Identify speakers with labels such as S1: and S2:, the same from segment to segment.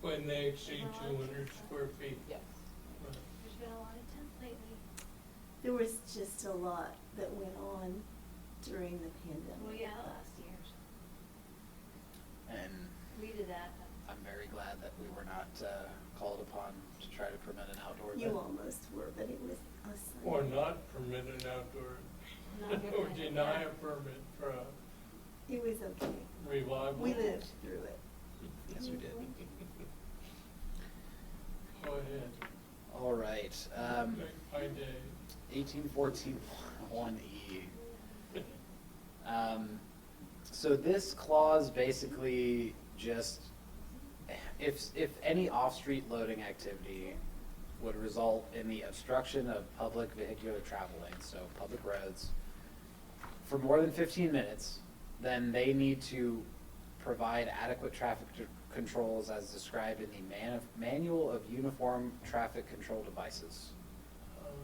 S1: when they exceed two hundred square feet.
S2: Yes.
S1: Right.
S3: There's been a lot of temp lately.
S4: There was just a lot that went on during the pandemic.
S3: Well, yeah, last year's.
S5: And
S3: We did that.
S5: I'm very glad that we were not uh, called upon to try to permit an outdoor event.
S4: You almost were, but it was a Sunday.
S1: Or not permit an outdoor,
S3: Not
S1: or
S3: good.
S1: deny a permit for a
S4: It was okay.
S1: revival.
S4: We lived through it.
S5: Yes, we did.
S1: Go ahead.
S5: All right. Um,
S1: By day.
S5: 1814 1E. Um, so this clause basically just, if, if any off-street loading activity would result in the obstruction of public vehicular travel lanes, so public roads, for more than fifteen minutes, then they need to provide adequate traffic c- controls as described in the man, manual of uniform traffic control devices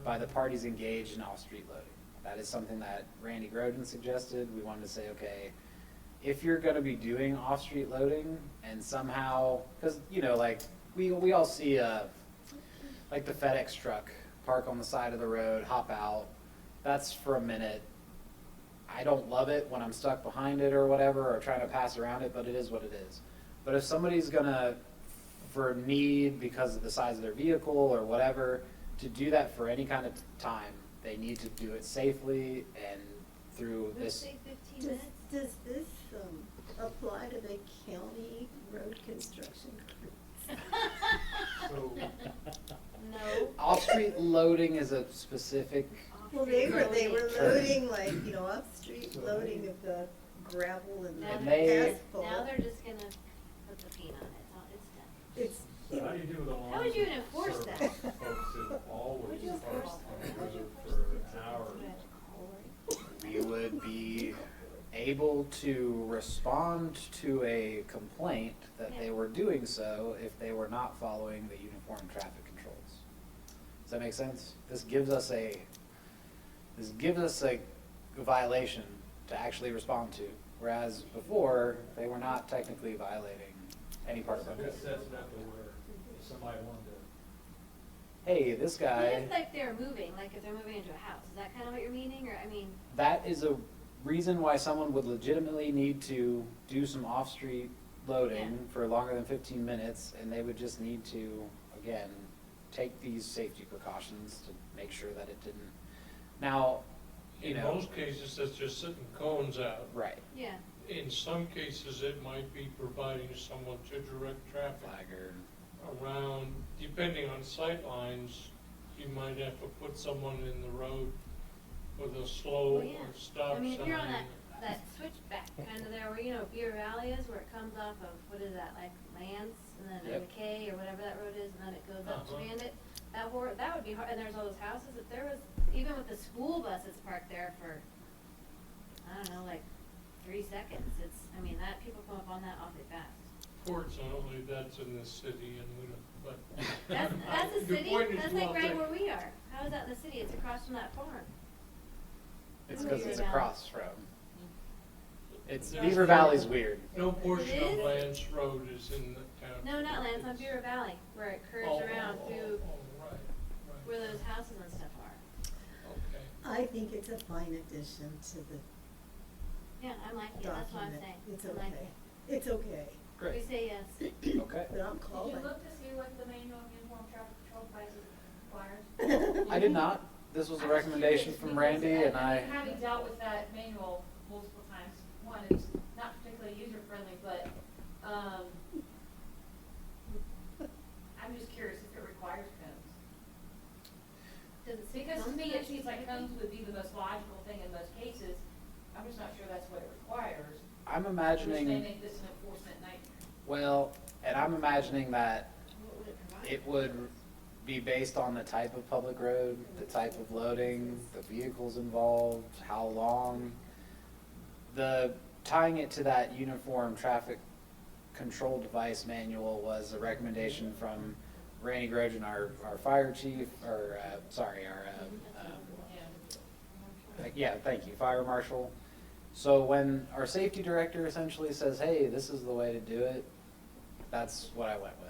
S5: by the parties engaged in off-street loading. That is something that Randy Groden suggested. We wanted to say, okay, if you're gonna be doing off-street loading and somehow, cause you know, like, we, we all see, uh, like the FedEx truck park on the side of the road, hop out. That's for a minute. I don't love it when I'm stuck behind it or whatever, or trying to pass around it, but it is what it is. But if somebody's gonna, for need because of the size of their vehicle or whatever, to do that for any kind of time, they need to do it safely and through
S3: Would you
S5: this.
S3: say fifteen
S4: Does,
S3: minutes?
S4: does this, um, apply to the county road construction? crews?
S3: No.
S5: Off-street loading is a specific,
S4: Well, they were, they were loading
S5: Loading.
S4: like, you know, off-street loading of the gravel and
S3: Now
S5: And
S3: they're,
S5: they-
S3: just- now
S4: asphalt.
S3: they're just gonna put the paint on it. It's all- It's done.
S4: It's,
S6: So how do you do the lawns?
S3: How would you enforce that?
S6: Folks that always
S3: you
S6: park
S3: enforce
S6: on
S3: that?
S6: the road for hours.
S5: we would be able to respond to a complaint that they were doing so if they were not following the uniform traffic controls. Does that make sense? This gives us a, this gives us a violation to actually respond to, whereas before, they were not technically violating any part of our
S6: I
S5: code.
S6: guess that's not the word, if somebody wanted to.
S5: Hey, this guy.
S3: What if like they're moving, like if they're moving into a house? Is that kind of what you're meaning? Or, I mean,
S5: that is a reason why someone would legitimately need to do some off-street loading
S3: Yeah.
S5: for longer than fifteen minutes, and they would just need to, again, take these safety precautions to make sure that it didn't. Now, you
S1: In
S5: know-
S1: most cases, that's just sitting cones out.
S5: right,
S3: yeah.
S1: In some cases, it might be providing someone to direct traffic
S5: flagger,
S1: around, depending on sight lines, you might have to put someone in the road with a slow
S3: Well,
S1: or
S3: Oh, yeah.
S1: stop sign.
S3: I mean, if you're on that, that switchback kind of there, where, you know, Beer Valley is, where it comes off of, what is that, like Lance, and then
S5: Yep.
S3: McKay, or whatever that road is, and then it goes up to
S1: Uh-huh.
S3: Bandit. That wor, that would be hard, and there's all those houses, if there was, even with the school buses parked there for, I don't know, like, three seconds, it's, I mean, that, people come up on that awfully fast.
S1: Fortunately, that's in the city and we don't, but.
S3: That's, that's a
S1: Your
S3: city,
S1: point is
S3: that's
S1: well
S3: like right
S1: taken.
S3: where we are, how is that in the city, it's across from that farm.
S5: it's
S3: Oh,
S5: cause
S3: Beaver
S5: it's
S3: Valley.
S5: across from, it's,
S1: That's
S5: Beaver
S1: not-
S5: Valley's weird.
S1: No portion
S3: It
S1: of
S3: is?
S1: Lance Road is in the town.
S3: No, not Lance, on
S1: It's-
S3: Beer Valley, where it
S1: Oh,
S3: curves around
S1: oh, oh,
S3: through
S1: oh, right, right.
S3: where those houses and stuff are.
S1: Okay.
S4: I think it's a fine addition to the
S3: Yeah, I'm like it, that's what I'm
S4: document.
S3: saying.
S4: It's
S3: I'm like
S4: okay.
S3: it.
S4: It's okay,
S3: We
S5: Great,
S3: say yes.
S5: okay.
S4: but I'm
S7: Did you
S4: calling.
S7: look to see what the manual of uniform traffic control devices requires?
S5: I did not, this was a recommendation from Randy and I.
S7: Having dealt with that manual multiple times, one, it's not particularly user-friendly, but, um, I'm just curious if it requires cones.
S3: Does it say
S7: Because to
S3: thumbs
S7: me,
S3: down?
S7: it seems like cones would be the most logical thing in most cases. I'm just not sure that's what it requires.
S5: I'm
S7: Which
S5: imagining.
S7: may make this an enforcement nightmare.
S5: Well, and I'm imagining that
S3: What would it provide?
S5: it would be based on the type of public road, the type of loading, the vehicles involved, how long. The, tying it to that uniform traffic control device manual was a recommendation from Randy Grogan, our, our fire chief, or, uh, sorry, our, um, um, like, yeah, thank you, fire marshal. So when our safety director essentially says, hey, this is the way to do it, that's what I went with.